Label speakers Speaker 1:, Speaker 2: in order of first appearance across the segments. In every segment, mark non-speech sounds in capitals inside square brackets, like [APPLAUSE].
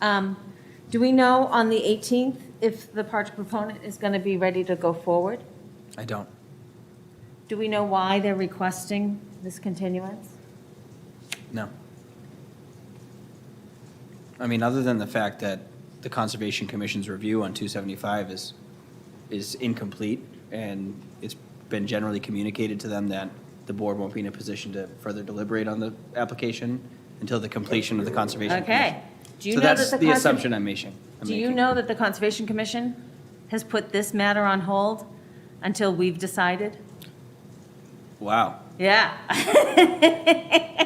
Speaker 1: Um, Do we know on the 18th if the project proponent is going to be ready to go forward?
Speaker 2: I don't.
Speaker 1: Do we know why they're requesting this continuance?
Speaker 2: No. I mean, other than the fact that the Conservation Commission's review on 275 is, is incomplete, and it's been generally communicated to them that the board won't be in a position to further deliberate on the application until the completion of the Conservation Commission.
Speaker 1: Okay. Do you
Speaker 2: So
Speaker 1: know that
Speaker 2: that's
Speaker 1: the
Speaker 2: the
Speaker 1: conser-
Speaker 2: assumption I'm making. I'm
Speaker 1: Do you
Speaker 2: making.
Speaker 1: know that the Conservation Commission has put this matter on hold until we've decided?
Speaker 2: Wow.
Speaker 1: Yeah. [LAUGHS]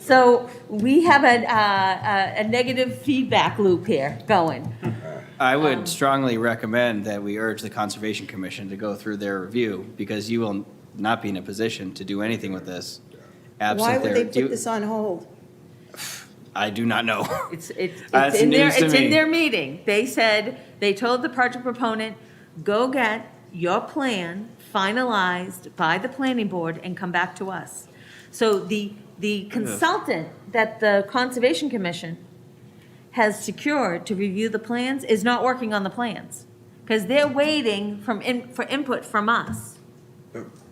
Speaker 1: So we have a, uh, a a negative feedback loop here going.
Speaker 2: I
Speaker 3: Um,
Speaker 2: would strongly recommend that we urge the Conservation Commission to go through their review, because you will not be in a position to do anything with this
Speaker 3: Why
Speaker 2: absent
Speaker 3: would
Speaker 2: their.
Speaker 3: they
Speaker 2: do-
Speaker 3: put this on hold?
Speaker 2: I do not know. [LAUGHS]
Speaker 1: It's, it's, it's
Speaker 2: That's
Speaker 1: in their,
Speaker 2: news to
Speaker 1: it's in
Speaker 2: me.
Speaker 1: their meeting. They said, they told the project proponent, go get your plan finalized by the planning board and come back to us. So the, the consultant that the Conservation Commission has secured to review the plans is not working on the plans. Because they're waiting from, in- for input from us.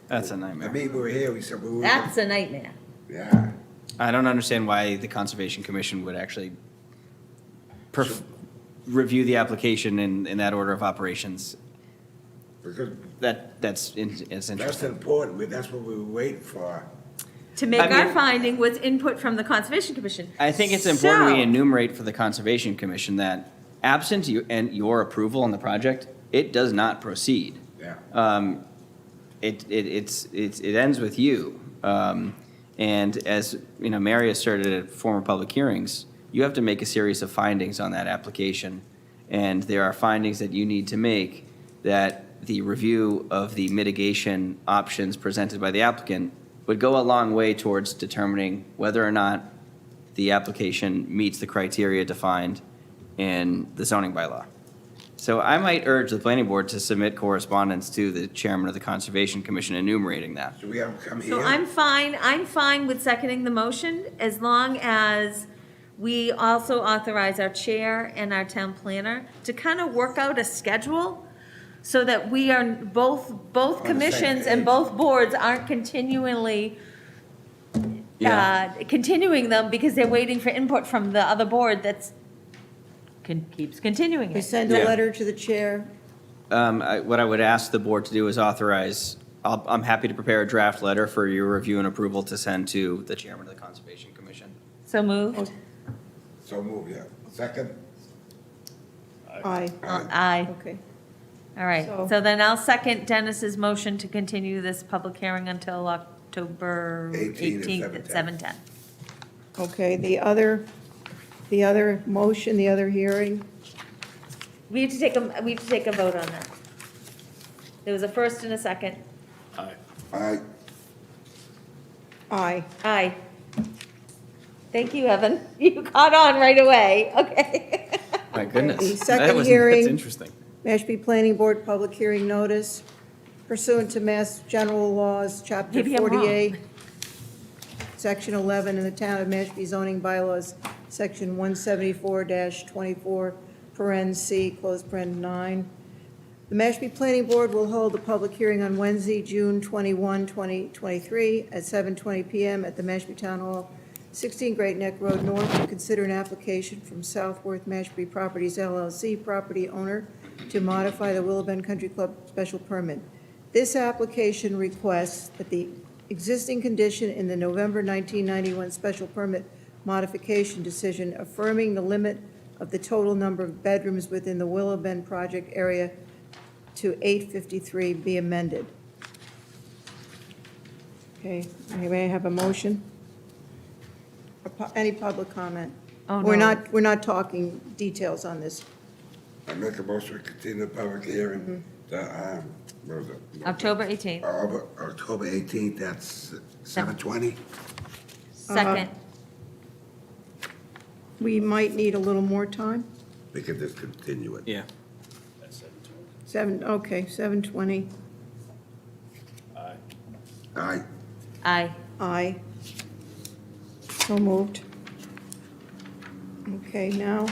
Speaker 2: That's a
Speaker 4: I
Speaker 2: nightmare.
Speaker 4: mean, we were here, we said, we were.
Speaker 1: That's a nightmare.
Speaker 4: Yeah,
Speaker 2: I don't understand why the Conservation Commission would actually perf- review the application in, in that order of operations.
Speaker 4: because
Speaker 2: That, that's, in- it's
Speaker 4: that's
Speaker 2: interesting.
Speaker 4: important, We- that's what we were waiting for.
Speaker 1: To make
Speaker 2: I mean-
Speaker 1: our finding was input from the Conservation Commission.
Speaker 2: I think it's important we
Speaker 1: So-
Speaker 2: enumerate for the Conservation Commission that absent you, and your approval on the project, it does not proceed.
Speaker 4: Yeah.
Speaker 2: Um, It, it, it's, it's, it ends with you. Um, And as, you know, Mary asserted at former public hearings, you have to make a series of findings on that application. And there are findings that you need to make that the review of the mitigation options presented by the applicant would go a long way towards determining whether or not the application meets the criteria defined in the zoning bylaw. So I might urge the planning board to submit correspondence to the chairman of the Conservation Commission enumerating that.
Speaker 4: So we have to come here.
Speaker 1: So I'm fine, I'm fine with seconding the motion as long as we also authorize our chair and our town planner to kind of work out a schedule so that we are both, both
Speaker 4: On the same
Speaker 1: commissions and
Speaker 4: page.
Speaker 1: both boards aren't continually, uh,
Speaker 2: Yeah.
Speaker 1: continuing them because they're waiting for input from the other board that's, can, keeps continuing
Speaker 3: We
Speaker 1: it.
Speaker 3: send a
Speaker 2: Yeah.
Speaker 3: letter to the chair.
Speaker 2: Um, I- What I would ask the board to do is authorize, I'll- I'm happy to prepare a draft letter for your review and approval to send to the chairman of the Conservation Commission.
Speaker 1: So moved?
Speaker 4: So move, yeah. Second,
Speaker 3: Aye,
Speaker 1: Aye.
Speaker 3: okay.
Speaker 1: All right,
Speaker 3: So-
Speaker 1: so then I'll second Dennis's motion to continue this public hearing until October
Speaker 4: 18 at
Speaker 1: 18th at 7:10.
Speaker 4: 7:10.
Speaker 3: Okay, the other, the other motion, the other hearing,
Speaker 1: We have to take a, we have to take a vote on that. There was a first and a second.
Speaker 4: aye,
Speaker 3: aye.
Speaker 1: Aye. Thank you, Evan. [LAUGHS] You caught on right away, okay.
Speaker 2: My goodness.
Speaker 3: The
Speaker 2: that
Speaker 3: second
Speaker 2: was-
Speaker 3: hearing-
Speaker 2: That's interesting.
Speaker 3: Mashpee Planning Board Public Hearing Notice pursuant to Mass General Laws, Chapter
Speaker 1: Maybe I'm wrong.
Speaker 3: 48, Section 11, in the Town of Mashpee zoning bylaws, Section 174-24, paren C, close paren 9. The Mashpee Planning Board will hold a public hearing on Wednesday, June 21, 2023, at 7:20 PM at the Mashpee Town Hall, 16 Great Neck Road North, to consider an application from Southworth Mashpee Properties LLC property owner to modify the Willow Bend Country Club special permit. This application requests that the existing condition in the November 1991 special permit modification decision affirming the limit of the total number of bedrooms within the Willow Bend project area to 853 be amended. Okay, may I have a motion? A pu- Any public comment?
Speaker 1: Oh,
Speaker 3: We're
Speaker 1: no.
Speaker 3: not, we're not talking details on this.
Speaker 4: I make a motion to continue the public hearing, to, um, what was it?
Speaker 1: Mm-hmm. October 18th,
Speaker 4: October, October eighteenth, that's seven twenty?
Speaker 1: second.
Speaker 3: We might need a little more time.
Speaker 4: We can just continue it.
Speaker 2: Yeah.
Speaker 3: Seven, okay, 7:20,
Speaker 4: Aye,
Speaker 1: Aye.
Speaker 3: aye. So moved. Okay, now